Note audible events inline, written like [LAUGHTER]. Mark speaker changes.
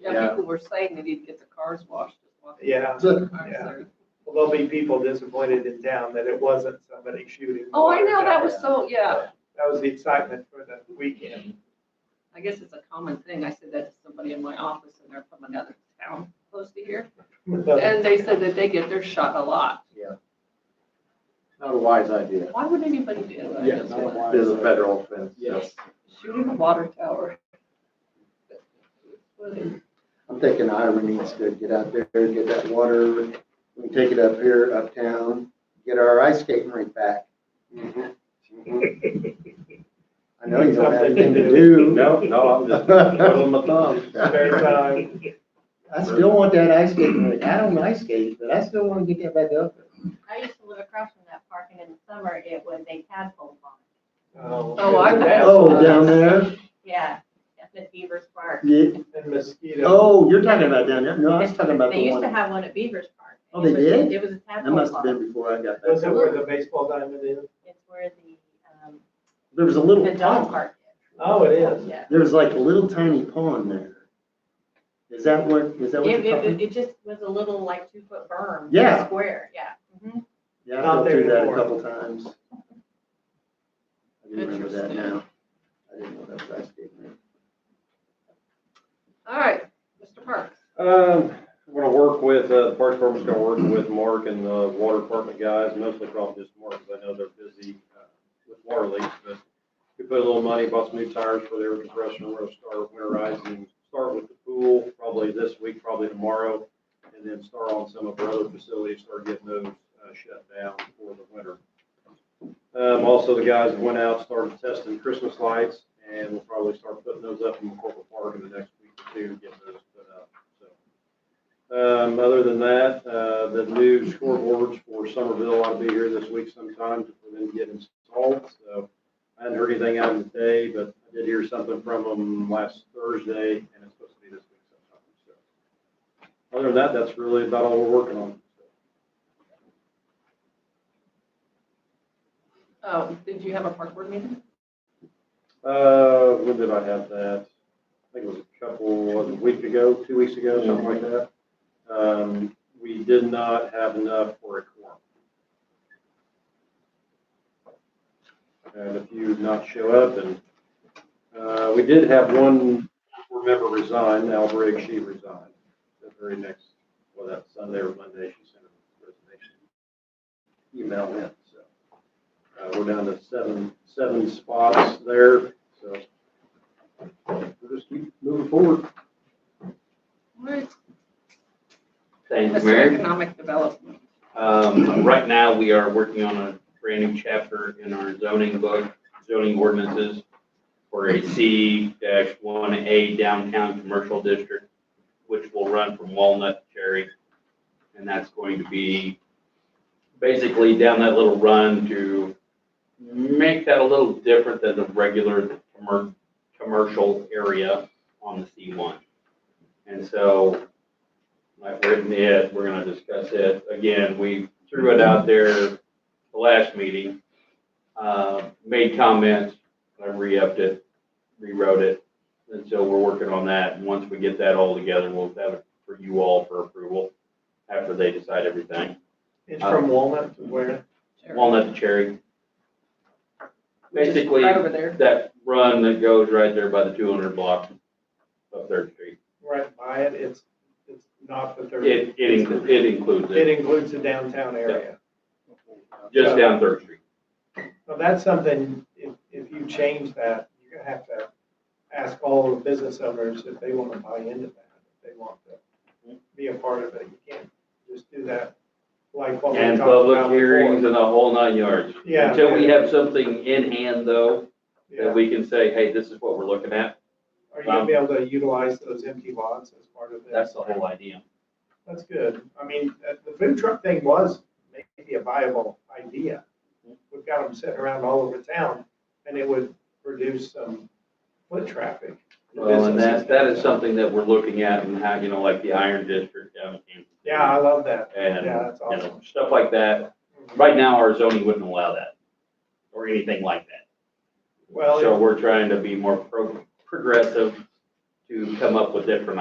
Speaker 1: Yeah,
Speaker 2: Yeah.
Speaker 1: people were saying they need to get their cars washed. as well.
Speaker 2: Yeah,
Speaker 1: Cars
Speaker 2: yeah.
Speaker 1: there.
Speaker 2: Well, there'll be people disappointed in town that it wasn't somebody shooting.
Speaker 1: Oh, I know, that was so, yeah,
Speaker 2: That was the excitement for the weekend.
Speaker 1: I guess it's a common thing. I said that to somebody in my office and they're from another town close to here. And they said that they get their shot a lot.
Speaker 3: Yeah. Not a wise idea.
Speaker 1: Why would anybody do that? I
Speaker 4: Yeah,
Speaker 1: just
Speaker 4: not a
Speaker 1: wonder.
Speaker 4: wise-
Speaker 3: It is a federal offense. so.
Speaker 4: Yes.
Speaker 1: Shooting a water tower. What is it?
Speaker 3: I'm thinking Ira needs to get out there and get that water. We can take it up here, uptown, get our ice skating rink back. Mm-hmm. I know you don't have anything to do.
Speaker 5: No, no, I'm just twiddling my
Speaker 3: [LAUGHS]
Speaker 5: thumbs.
Speaker 2: Spare time.
Speaker 3: I still want that ice skating rink. I don't ice skate, but I still want to get that back up.
Speaker 6: I used to live across from that park and in the summer it was a tadpole pond.
Speaker 2: Um,
Speaker 1: Oh, I bet.
Speaker 3: Oh, down there?
Speaker 6: Yeah, at the Beaver's Park.
Speaker 3: Yeah.
Speaker 2: And mosquito.
Speaker 3: Oh, you're talking about down there? No, I was talking about
Speaker 6: They
Speaker 3: the
Speaker 6: used to
Speaker 3: one.
Speaker 6: have one at Beaver's Park.
Speaker 3: Oh,
Speaker 6: It
Speaker 3: they
Speaker 6: was-
Speaker 3: did?
Speaker 6: It was a
Speaker 3: That
Speaker 6: tadpole
Speaker 3: must have
Speaker 6: pond.
Speaker 3: been before I got
Speaker 2: Was
Speaker 3: there.
Speaker 2: that where the baseball diamond is?
Speaker 6: It's where the, um,
Speaker 3: There was a little
Speaker 6: the dog
Speaker 3: pond.
Speaker 6: park
Speaker 2: Oh, it
Speaker 6: is.
Speaker 2: is.
Speaker 6: Yeah.
Speaker 3: There was like a little tiny pond there. Is that what, is that what
Speaker 6: It,
Speaker 3: you're
Speaker 6: it,
Speaker 3: talking?
Speaker 6: it just was a little like two foot berm.
Speaker 3: Yeah.
Speaker 6: Square, yeah. Mhm.
Speaker 3: Yeah,
Speaker 2: Not
Speaker 3: I've been through
Speaker 2: there
Speaker 3: that a
Speaker 2: anymore.
Speaker 3: couple times. I do remember that
Speaker 1: Interesting.
Speaker 3: now. I didn't know that was ice skating rink.
Speaker 1: All right, Mr. Parks.
Speaker 5: Um, we're gonna work with, uh, the park department's gonna work with Mark and the water department guys, mostly probably just Mark, because I know they're busy, uh, with water leaks, but we put a little money, bought some new tires for their compressor, we're gonna start winterizing, start with the pool, probably this week, probably tomorrow, and then start on some of our other facilities, start getting those, uh, shut down for the winter. Um, also, the guys went out, started testing Christmas lights, and we'll probably start putting those up in the corporate park in the next week or two, get those put up, so. Um, other than that, uh, the new scoreboards for Somerville ought to be here this week sometime for them to get installed, so. I hadn't heard anything out of them today, but I did hear something from them last Thursday, and it's supposed to be this week sometime, so. Other than that, that's really about all we're working on.
Speaker 1: Um, did you have a park board meeting?
Speaker 5: Uh, when did I have that? I think it was a couple, was it a week ago, two weeks ago, something like that. Um, we did not have enough for a quorum. And a few did not show up and, uh, we did have one board member resign, Al Briggs, she resigned. The very next, well, that Sunday or Monday, she sent a resignation email in, so. Uh, we're down to seven, seven spots there, so. We'll just keep moving forward.
Speaker 1: Right.
Speaker 4: Thanks,
Speaker 1: Mr.
Speaker 4: Mayor.
Speaker 1: Economic Development.
Speaker 4: Um, right now, we are working on a brand new chapter in our zoning book, zoning ordinances for a C one A downtown commercial district, which will run from Walnut to Cherry. And that's going to be basically down that little run to make that a little different than the regular commer- commercial area on the C one. And so I've written it, we're gonna discuss it. Again, we threw it out there the last meeting, uh, made comments, I re-upped it, rewrote it. And so we're working on that. And once we get that all together, we'll have it for you all for approval after they decide everything.
Speaker 2: It's from Walnut to where?
Speaker 1: Sure.
Speaker 4: Walnut to Cherry, basically,
Speaker 1: Right over there.
Speaker 4: that run that goes right there by the two hundred block of Third Street.
Speaker 2: Right by it. It's, it's not the third.
Speaker 4: It, it includes, it includes
Speaker 2: It
Speaker 4: it,
Speaker 2: includes the downtown area.
Speaker 4: just down Third Street.
Speaker 2: So that's something, if, if you change that, you're gonna have to ask all the business owners if they wanna buy into that, if they want to be a part of it. You can't just do that like what we
Speaker 4: And
Speaker 2: talked
Speaker 4: public
Speaker 2: about
Speaker 4: hearings
Speaker 2: before.
Speaker 4: and the whole nine yards.
Speaker 2: Yeah.
Speaker 4: Until we have something in hand though, that
Speaker 2: Yeah.
Speaker 4: we can say, hey, this is what we're looking at,
Speaker 2: Are you gonna be able to utilize those empty lots as part of this?
Speaker 4: that's the whole idea.
Speaker 2: That's good. I mean, uh, the food truck thing was maybe a viable idea. We've got them sitting around all over town and it would reduce some foot traffic. The
Speaker 4: Well, and
Speaker 2: businesses
Speaker 4: that, that is
Speaker 2: downtown.
Speaker 4: something that we're looking at and how, you know, like the Iron District down in Kansas.
Speaker 2: Yeah, I love that.
Speaker 4: And,
Speaker 2: Yeah, that's
Speaker 4: you
Speaker 2: awesome.
Speaker 4: know, stuff like that. Right now, our zoning wouldn't allow that or anything like that.
Speaker 2: Well,
Speaker 4: So we're trying to be more pro- progressive to come up with different